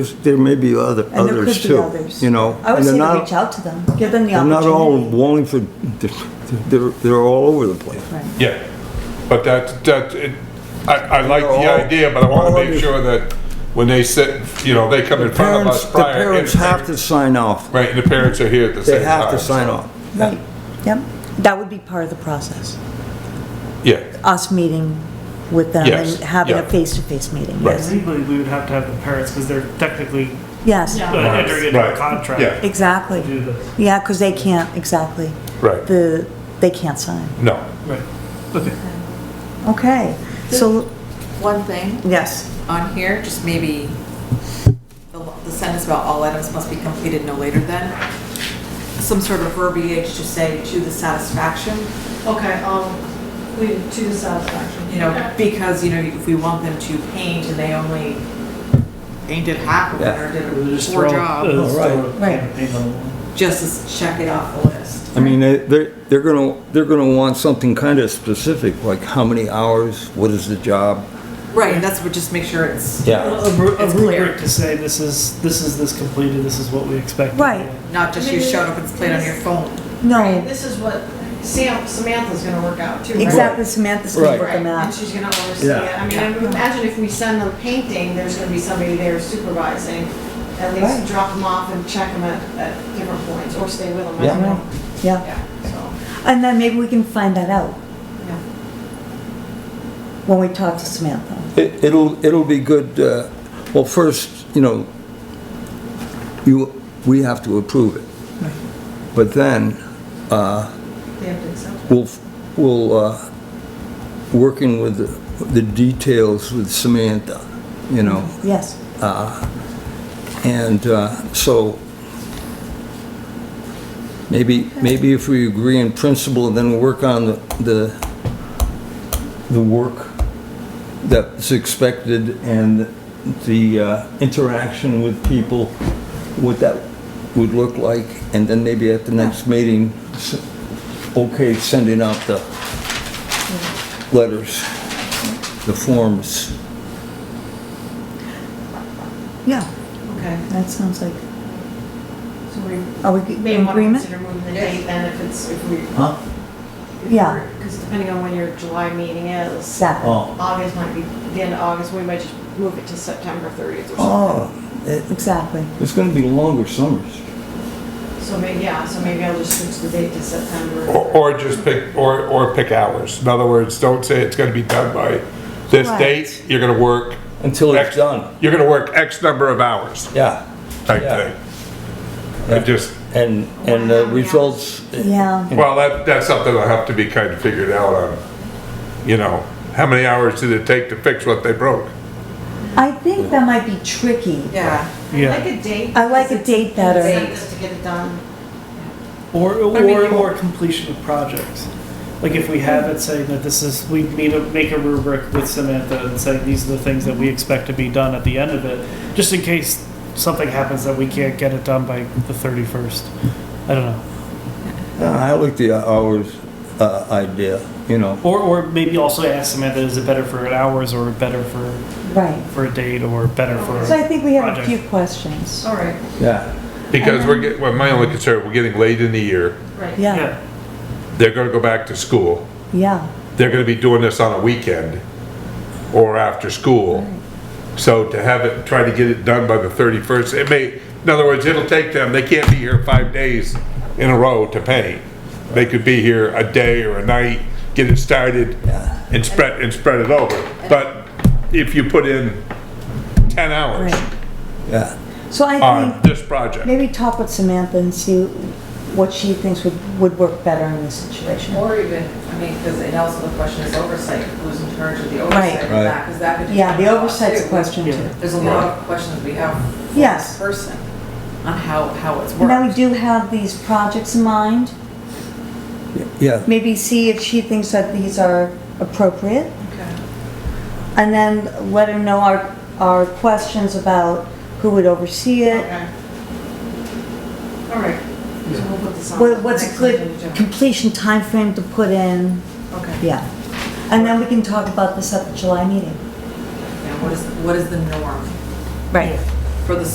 There may be other, And there others could be too. others. You know? I And would they're say to not- reach out to them, give them the They're not all opportunity. Wallingford, they're- they're, they're all over the place. Yeah, but that, that, it- I, I like They're the all- idea, but I want all to under- make sure that when they sit, you know, they come in front of Parents, us the prior. and parents the have to parents- sign off. Right, and the parents are here at the same They time. have to sign so- off. Right, yep, that would be part of the process, Yeah, us meeting with them Yes, and having a yeah. face-to-face meeting, Right. yes. Legally, we would have to have the parents because they're technically Yes, uh, entering into Right. a contract. Yeah. to exactly, Do this, yeah, because they can't, exactly, right, the, they can't sign. no, right. Okay. Okay, so, One thing yes, on here, just maybe the the sentence about all items must be completed no later than, some sort of verbiage to say to the satisfaction, Okay, um, we, to the satisfaction. you know, because, you know, if we want them to paint and they only painted half of it or We'll did just poor throw- job, uh, just All throw a Right. campaign on the wall. just to check it off the list. I mean, they, they're, they're gonna, they're gonna want something kind of specific, like how many hours, what is the job? Right, and that's what, just make sure it's A Yeah. ru- a It's clear. rubric to say, this is, this is this completed, this is what we expect. Right. not just you showed up and it's played on your phone. Right, no, This is what Sam, Samantha's gonna work out too, right? exactly, Samantha's gonna Right. work them Right, and out. she's gonna oversee it. Yeah. I mean, I would imagine if we send them painting, there's gonna be somebody there supervising. At Right. least drop them off and check them at, at different points, or stay with them. I Yeah. don't know. Yeah, Yeah, so, and then maybe we can find that out yeah. when we talk to Samantha. It, it'll, it'll be good, uh, well, first, you know, you, we have to approve it. But then, They have to accept it. we'll, we'll, uh, working with the- the details with Samantha, you know, Yes, and uh, so maybe, maybe if we agree in principle, then we'll work on the, the, the work that's expected and the uh, interaction with people, what that would look like, and then maybe at the next meeting, s- okay, sending out the letters, the forms. yeah, Okay, that sounds like, so we are we may in want to agreement? consider moving the date then if it's, if we. Huh? Yeah. Because depending on when your July meeting is. Exactly. Oh, August might be, the end of August, we might just move it to September 30th or something. oh, it- Exactly, It's gonna be longer summers. So maybe, yeah, so maybe I'll just switch the date to September. or, or just pick, or, or pick hours. In other words, don't say it's gonna be done by this Right. date, you're gonna work. Until it's X- done. You're gonna work X number of hours, Yeah. type Yeah. thing. It just, And, and the results, yeah. Well, that, that's something that'll have to be kind of figured out on, you know, how many hours did it take to fix what they broke? I think that might be tricky. Yeah, I Yeah. like a date. I like a date better. Just to get it done. Or, I mean, or, you- or completion of projects. Like if we have it saying that this is, we need to make a rubric with Samantha and say these are the things that we expect to be done at the end of it, just in case something happens that we can't get it done by the thirty-first. I don't know. I like the hours, uh, idea, you know. Or, or maybe also ask Samantha, is it better for hours or better for, Right. for a date or better for? So I think we have a Project. few questions. All right, Yeah. Because we're get, well, my only concern, we're getting late in the year, right. Yeah, Yeah, they're gonna go back to school, yeah, they're gonna be doing this on a weekend or after school. So to have it, try to get it done by the thirty-first, it may, in other words, it'll take them, they can't be here five days in a row to paint. They could be here a day or a night, get it started and spread, and spread it over. But if you put in ten hours right. Yeah. So I on think this project, maybe talk with Samantha and see what she thinks would, would work better in this situation. or even, I mean, because it also the question is oversight, who's in charge of the oversight of Right. that? Because that could. Yeah, the change a lot, oversight's a too. question too. There's a lot of questions we have for Yes. this person on how, how it's And Now we worked. do have these projects in mind. Yeah, Maybe see if she thinks that these are appropriate. Okay. And then let her know our, our questions about who would oversee it, Okay. All right, so we'll put this on. what- what's a next good agenda. completion timeframe to put in. Okay, Yeah, and then we can talk about this at the July meeting. And what is, what is the norm Right. for the